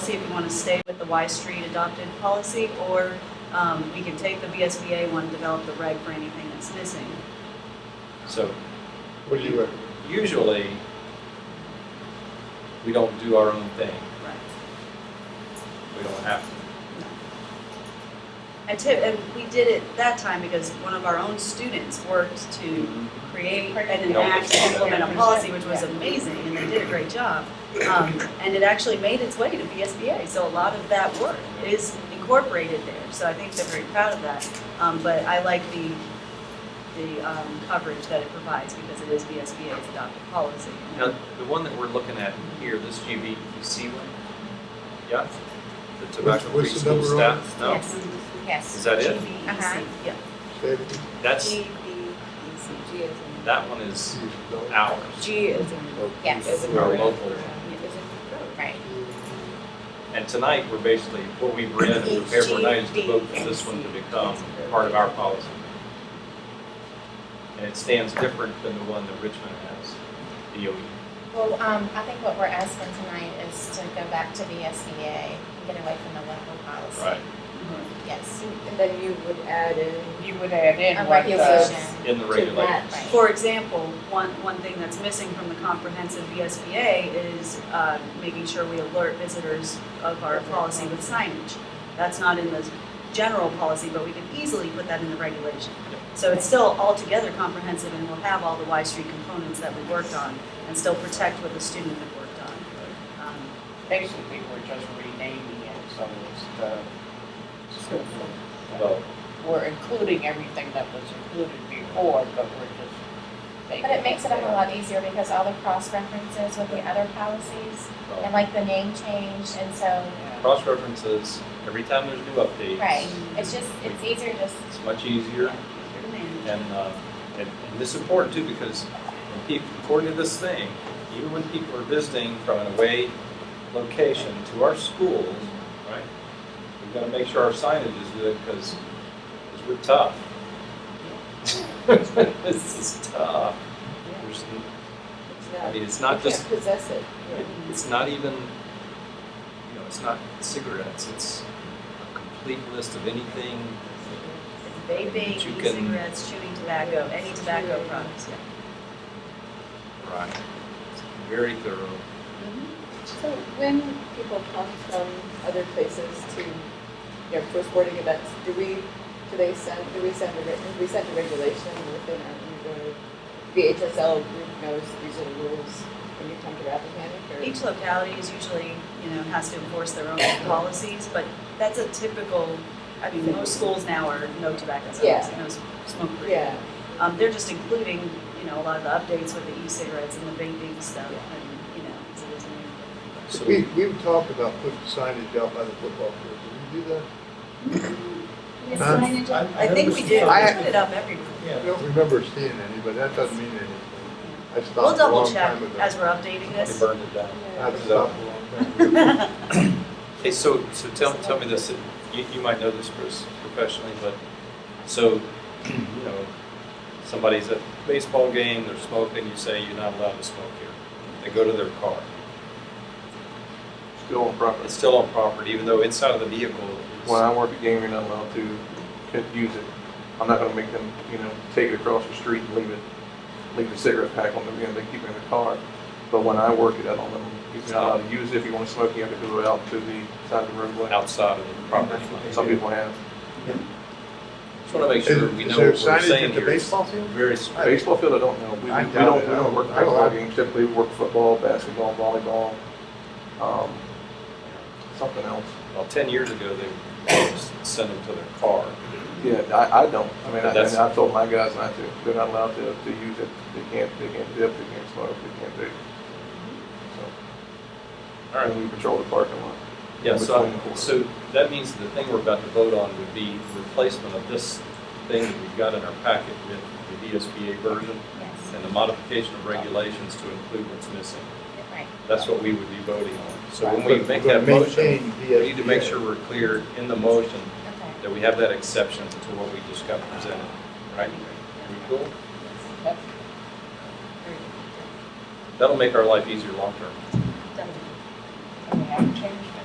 policy if you want to stay with the Y Street adopted policy, or um, we can take the VSBA one, develop the reg for anything that's missing. So What do you recommend? usually, we don't do our own thing. Right. We don't have to. And tip, and we did it that time because one of our own students worked to Hmm. create and enact and implement a policy, which was amazing, and they did a great job. Um, and it actually made its way to VSBA, so a lot of that work is incorporated there, so I think they're very proud of that. Um, but I like the, the, um, coverage that it provides because it is VSBA's adopted policy. Now, the one that we're looking at here, this GBEC one, yeah? The tobacco free what's the school number on staff, no? Yes. Is Yes. that it? Uh-huh. E Yeah. Say it again. That's, E, G is that one is You don't- ours. G is Yes. We're our local. Right. And tonight, we're basically, what we've read and prepared for tonight is to vote for this one to become part of our policy. And it stands different than the one that Richmond has, E. DOE. Well, um, I think what we're asking tonight is to go back to VSBA and get away from the local policy. Right. Yes, And then you would add in. You would add in a what uh, the, regulation. In the regulations. Right. For example, one, one thing that's missing from the comprehensive VSBA is uh, making sure we alert visitors of our policy with signage. That's not in the general policy, but we can easily put that in the regulation. So it's still altogether comprehensive and will have all the Y Street components that we worked on and still protect what the student had worked on. Um, basically, we're just renaming it, so it's the school. food. Well, We're including everything that was included before, but we're just making. But it makes it a whole lot easier because all the cross references with the other policies and like the name change and so, Yeah. cross references, every time there's new updates. right. It's just, it's easier just, It's much easier and, uh, and, and this is important too because when people, according to this thing, even when people are visiting from an away location to our schools, right? We've got to make sure our signage is good because, we're tough. This is tough. There's n- I mean, it's not just possess it. it- It's not even, you know, it's not cigarettes, it's a complete list of anything. It's But Vaping, you can- e-cigarettes, chewing tobacco, any tobacco products, yeah. Right. Very thorough. So when people come from other places to, you know, for sporting events, do we, do they send, do we send a, reg- we send a regulation within our, the VHSL group knows these are the rules when you come to Rappahannock or? Each locality is usually, you know, has to enforce their own policies, but that's a typical, I mean, most schools now are no tobacco zones, Yeah. no s- smoke free. Yeah, Um, they're just including, you know, a lot of the updates with the e-cigarettes and the vaping stuff and, you know, so there's new. So- We, we talked about putting signage out by the football field. Did we do that? Huh? I think we did, we I- put it up everywhere. I don't remember seeing any, but that doesn't mean anything. I We'll stopped a double long check time ago. as we're updating They this. burned it down. I stopped a long time ago. Hey, so, so tell, tell me this, you, you might know this, Chris, professionally, but, so, you know, somebody's at a baseball game, they're smoking, you say you're not allowed to smoke here. They go to their car. Still on property. It's still on property, even though inside of the vehicle is. When I work at game, you're not allowed to c- use it. I'm not gonna make them, you know, take it across the street and leave it, leave the cigarette pack on them, you know, they keep it in the car. But when I work it, I don't let them, you're not allowed to use it. If you wanna smoke, you have to go out to the side of the roadway. Outside of the property line. Some people have. Just want to make sure Is- we is know there what we're signage saying at the here. It's baseball field? Very strict. Baseball field, I don't know. We, we I don't, doubt it. we don't work I don't- I baseball don't- games, typically we work football, basketball, volleyball, um, something else. Well, ten years ago, they would send them to their car. Yeah, I, I don't. I mean, I, That's- and I told my guys not to. They're not allowed to, to use it. They can't, they can't dip, they can't smoke, they can't do. So, All right. and we patrol the parking lot. Yeah, so, Between the so that means the thing we're about to vote on would be replacement of this thing that we've got in our packet with the VSBA version yes, and the modification of regulations to include what's missing. right. That's what we would be voting on. So when But- we make but that motion, maintain we need to make VSBA. sure we're clear in the motion Okay. that we have that exception to what we just got presented, right? We cool? Yep. That'll make our life easier long-term. And we haven't changed it.